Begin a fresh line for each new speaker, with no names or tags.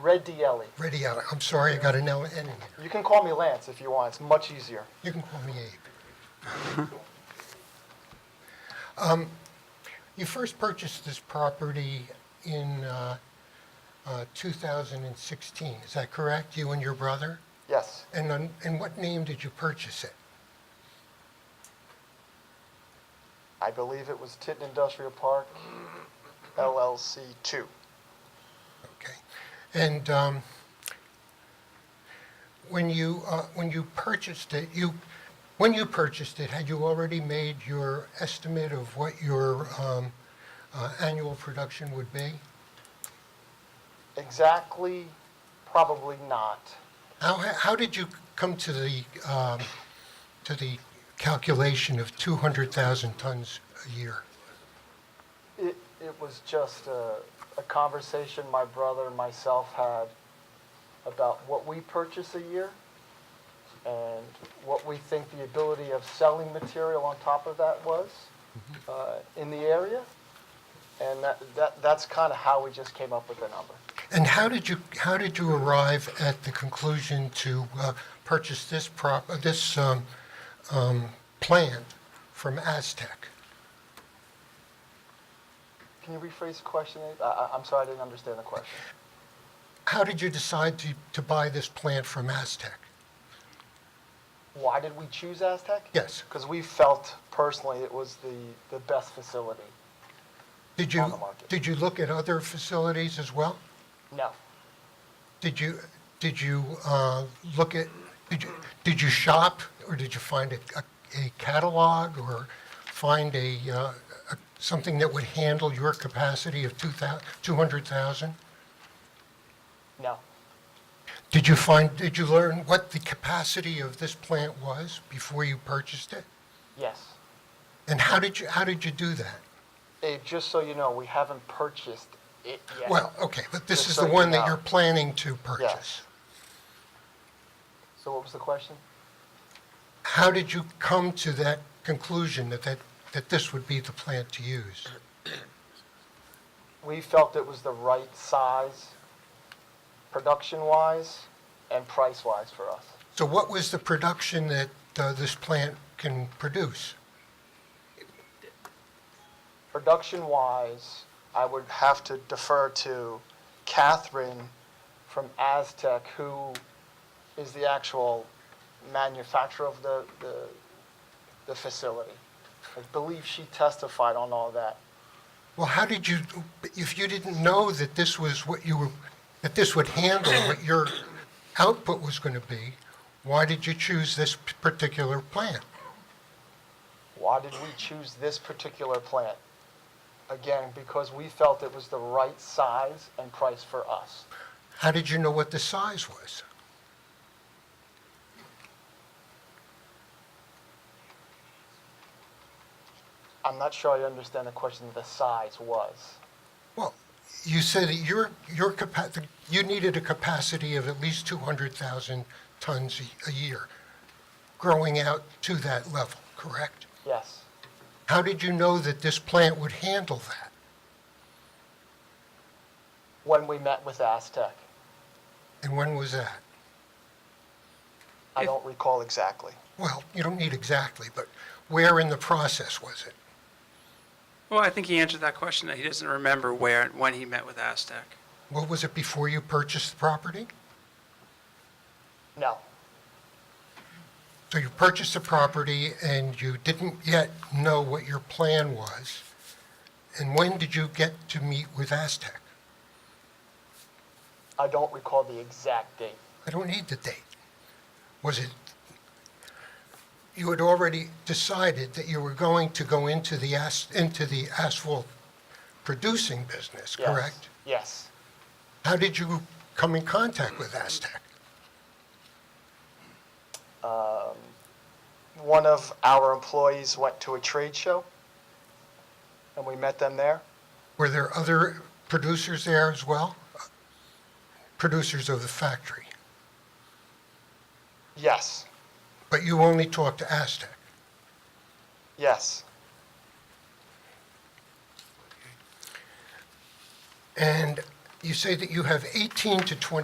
Red Dielli.
Ready out. I'm sorry, I got an L N in there.
You can call me Lance if you want, it's much easier.
You can call me Abe. Um, You first purchased this property in uh, uh, 2016, is that correct? You and your brother?
Yes,
And on, in what name did you purchase it?
I believe it was Titan Industrial Park LLC 2.
Okay. And um, when you, uh, when you purchased it, you, when you purchased it, had you already made your estimate of what your um, uh, annual production would be?
Exactly, probably not.
How, how did you come to the, um, to the calculation of 200,000 tons a year?
It, it was just a, a conversation my brother and myself had about what we purchase a year and what we think the ability of selling material on top of that was uh, in the area. And that, that, that's kind of how we just came up with the number.
And how did you, how did you arrive at the conclusion to uh, purchase this prop, uh, this um, um, plant from Aztec?
Can you rephrase the question? Abe? I, I, I'm sorry, I didn't understand the question.
How did you decide to, to buy this plant from Aztec?
Why did we choose Aztec?
Yes.
Because we felt personally it was the, the best facility.
Did you,
On the market.
did you look at other facilities as well?
No.
Did you, did you uh, look at, did you, did you shop, or did you find a- a, a catalog, or find a, uh, a- something that would handle your capacity of 2,000 200,000?
No.
Did you find, did you learn what the capacity of this plant was before you purchased it?
Yes.
And how did you, how did you do that?
Abe, just so you know, we haven't purchased it yet.
Well, okay, but this
Just
is
so
the
you
one
know.
that you're planning to purchase.
So what was the question?
How did you come to that conclusion that, that, that this would be the plant to use?
We felt it was the right size, production-wise and price-wise for us.
So what was the production that uh, this plant can produce?
Production-wise, I would have to defer to Catherine from Aztec, who is the actual manufacturer of the, the, the facility. I believe she testified on all that.
Well, how did you, if you didn't know that this was what you were, that this would handle what your output was going to be, why did you choose this p- particular plant?
Why did we choose this particular plant? Again, because we felt it was the right size and price for us.
How did you know what the size was?
I'm not sure I understand the question, the size was.
Well, you said that your, your capa, you needed a capacity of at least 200,000 tons a- a year, growing out to that level, correct?
Yes.
How did you know that this plant would handle that?
When we met with Aztec.
And when was that?
I
If-
don't recall exactly.
Well, you don't need exactly, but where in the process was it?
Well, I think he answered that question, that he doesn't remember where, and when he met with Aztec.
What was it before you purchased the property?
No.
So you purchased the property and you didn't yet know what your plan was. And when did you get to meet with Aztec?
I don't recall the exact date.
I don't need the date. Was it, you had already decided that you were going to go into the, as- into the asphalt producing business,
Yes.
correct?
Yes.
How did you come in contact with Aztec?
One of our employees went to a trade show, and we met them there.
Were there other producers there as well? Producers of the factory?
Yes.
But you only talked to Aztec?
Yes.
And you say that you have 18 to 20